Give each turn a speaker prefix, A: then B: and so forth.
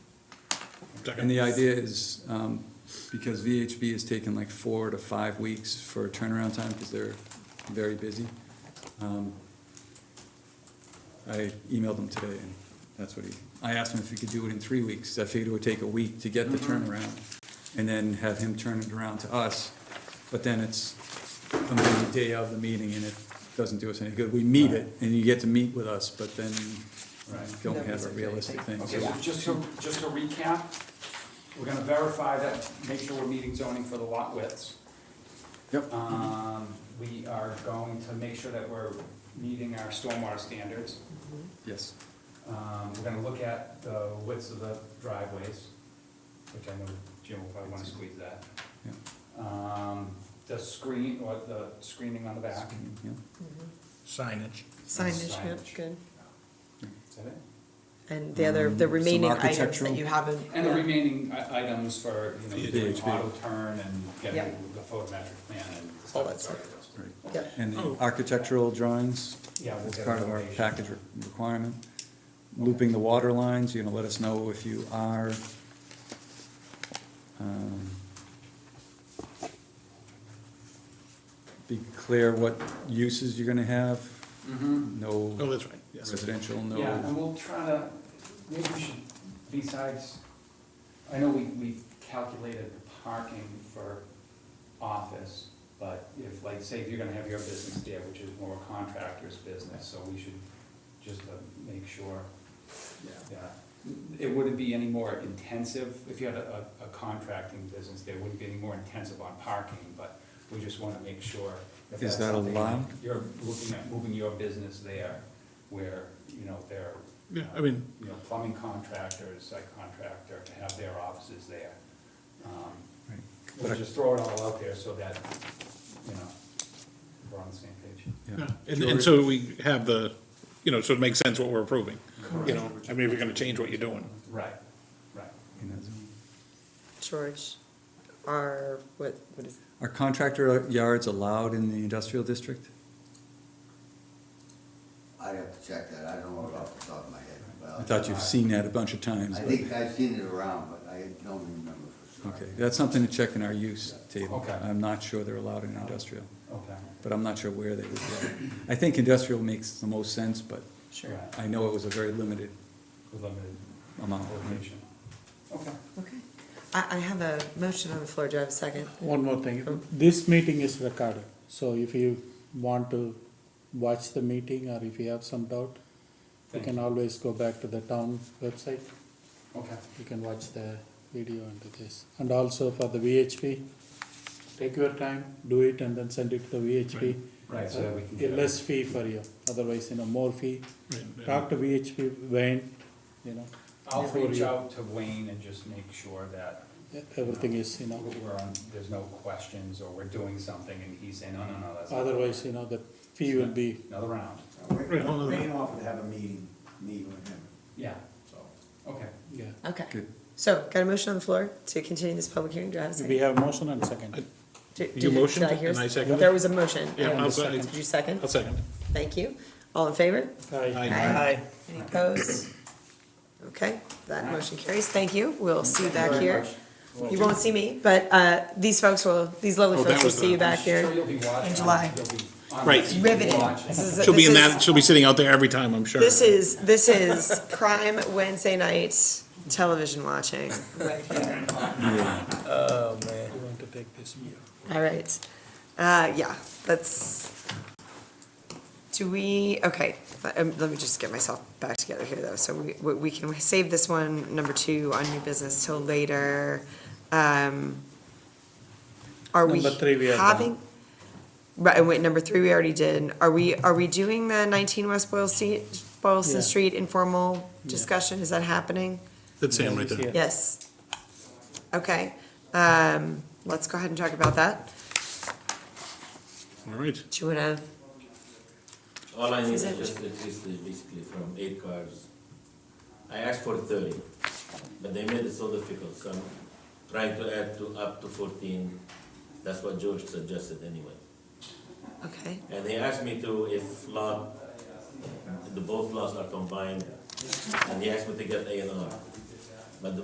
A: Second.
B: And the idea is, um, because VHB is taking like four to five weeks for turnaround time, because they're very busy. um, I emailed him today, and that's what he, I asked him if he could do it in three weeks, I figured it would take a week to get the
C: Mm-hmm.
B: turnaround, and then have him turn it around to us, but then it's a meeting day of the meeting, and it doesn't do us any good, we meet it, and you get to meet with us, but then don't have a realistic thing,
C: Okay,
B: so
C: so just to, just to recap, we're gonna verify that, make sure we're meeting zoning for the lot widths.
B: Yep.
C: Um, we are going to make sure that we're meeting our stormwater standards.
B: Yes.
C: Um, we're gonna look at the widths of the driveways, which I know Jim will probably wanna squeeze that.
B: Yeah.
C: Um, the screen, or the screening on the back,
B: Yeah.
A: Signage.
D: Mm-hmm. Signage, yeah,
C: Signage.
D: good.
C: is that it?
D: And the other, the
B: Um, some
D: remaining items
B: architectural-
D: that you haven't.
C: And the
D: yeah.
C: remaining i- items for, you know,
B: Yeah,
C: doing
B: VHB.
C: auto turn and getting
D: Yep.
C: the photometric plan and
D: All
C: stuff.
D: that
C: like that.
B: Right.
D: Yeah.
B: And
A: Oh.
B: the architectural drawings,
C: Yeah, we'll
B: as
C: get
B: part of our
C: information.
B: package re- requirement. Looping the water lines, you know, let us know if you are, um, be clear what uses you're gonna have,
C: Mhm.
D: Mm-hmm.
A: Oh,
B: no
A: that's right, yes.
B: residential,
C: Yeah,
B: no,
C: and we'll try to, maybe we should, besides, I know we, we've calculated the parking for office, but if, like, say if you're gonna have your business there, which is more a contractor's business, so we should just uh, make sure that it wouldn't be any more intensive, if you had a, a a contracting business, there wouldn't be any more intensive on parking, but we just wanna make sure. if
B: Is
C: that's
B: that
C: something
B: allowed?
C: You're looking at moving your business there, where, you know, they're.
A: Yeah, I mean,
C: You know, plumbing contractors, site contractor, to have their offices there. Um,
B: right. But
C: We'll
B: I-
C: just throw it all out there so that, you know, we're on the same page.
B: yeah.
A: yeah, and, and so we have the, you know, so it makes sense what we're approving, you know, I mean, we're gonna change what you're doing.
C: Right, right.
B: in that zone.
D: George, are, what, what is,
B: Are contractor yards allowed in the industrial district?
E: I'd have to check that, I don't know it off the top of my head. Well,
B: I thought you've seen that a bunch of times,
E: I
B: but-
E: think I've seen it around, but I don't remember for sure.
B: Okay, that's something to check in our use table.
C: Okay.
B: I'm not sure they're allowed in industrial,
C: Okay.
B: but I'm not sure where they would go. I think industrial makes the most sense, but
D: sure,
C: Right.
B: I know it was a very limited
C: With limited
B: amount.
C: location. Okay.
D: okay. I, I have a motion on the floor, do I have a second?
F: One more thing, this meeting is recorded, so if you want to watch the meeting or if you have some doubt, you
C: Thank
F: can always go back to the town website,
C: Okay.
F: you can watch the video and this. And also for the VHP, take your time, do it and then send it to VHP.
C: Right, so that we can
F: Uh,
C: get
F: Less fee for you, otherwise, you know, more fee. Talk to VHP, Wayne, you know,
C: I'll
F: Before
C: reach
F: you-
C: out to Wayne and just make sure that um,
F: everything is, you know,
C: we're on, there's no questions or we're doing something and he's saying, no, no, no, that's. not-
F: otherwise, you know, the fee will be
C: Another round,
A: Right, hold on.
G: Rayne offered to have a meeting, meet with him,
C: yeah,
G: so.
C: okay.
F: Yeah,
D: Okay,
B: Good.
D: so, got a motion on the floor to continue this public hearing, do I have a
F: we
D: second?
F: have motion and second.
D: Do-
A: You
D: do- did
A: motioned
D: hear
A: and I
D: s-
A: seconded.
D: There was a motion.
A: Yeah,
F: I'll second.
D: Did you second?
A: I'll second.
D: Thank you. All in favor?
F: Aye.
D: Any opposed? Okay, that motion carries, thank you, we'll see you back
C: Thank you very
D: here. You won't see me, but, uh, these folks will, these lovely
A: Oh, that
D: folks will
A: was
D: see
A: the-
D: you back here.
C: Sure you'll be watching.
D: in July.
C: You'll be on
A: Right.
C: TV
D: Riveting.
C: watching.
D: This is-
A: She'll be in
D: this is-
A: that, she'll be sitting out there every time, I'm sure.
D: This is, this is prime Wednesday night television watching.
F: You want to take this?
D: All right. Uh, yeah, let's, do we, okay, let um, let me just get myself back together here though. So we, we- we can save this one, number two, on new business till later. Um, Are we
F: Number three we are done.
D: having? Right, and wait, number three, we already did. Are we, are we doing the nineteen West Boylston, Boylston
F: Yeah.
D: Street informal
F: Yeah.
D: discussion? Is that happening?
A: That's Sam right there.
F: Yeah.
D: Yes. Okay, um, let's go ahead and talk about that.
A: All right,
D: Do you wanna,
H: All I need
D: Is
H: is
D: it-
H: just a list basically from eight cards. I asked for thirty, but they made it so difficult, so I'm trying to add to up to fourteen. That's what George suggested anyway.
D: okay,
H: And he asked me to, if lot, the both lots are combined, and he asked me to get A and R.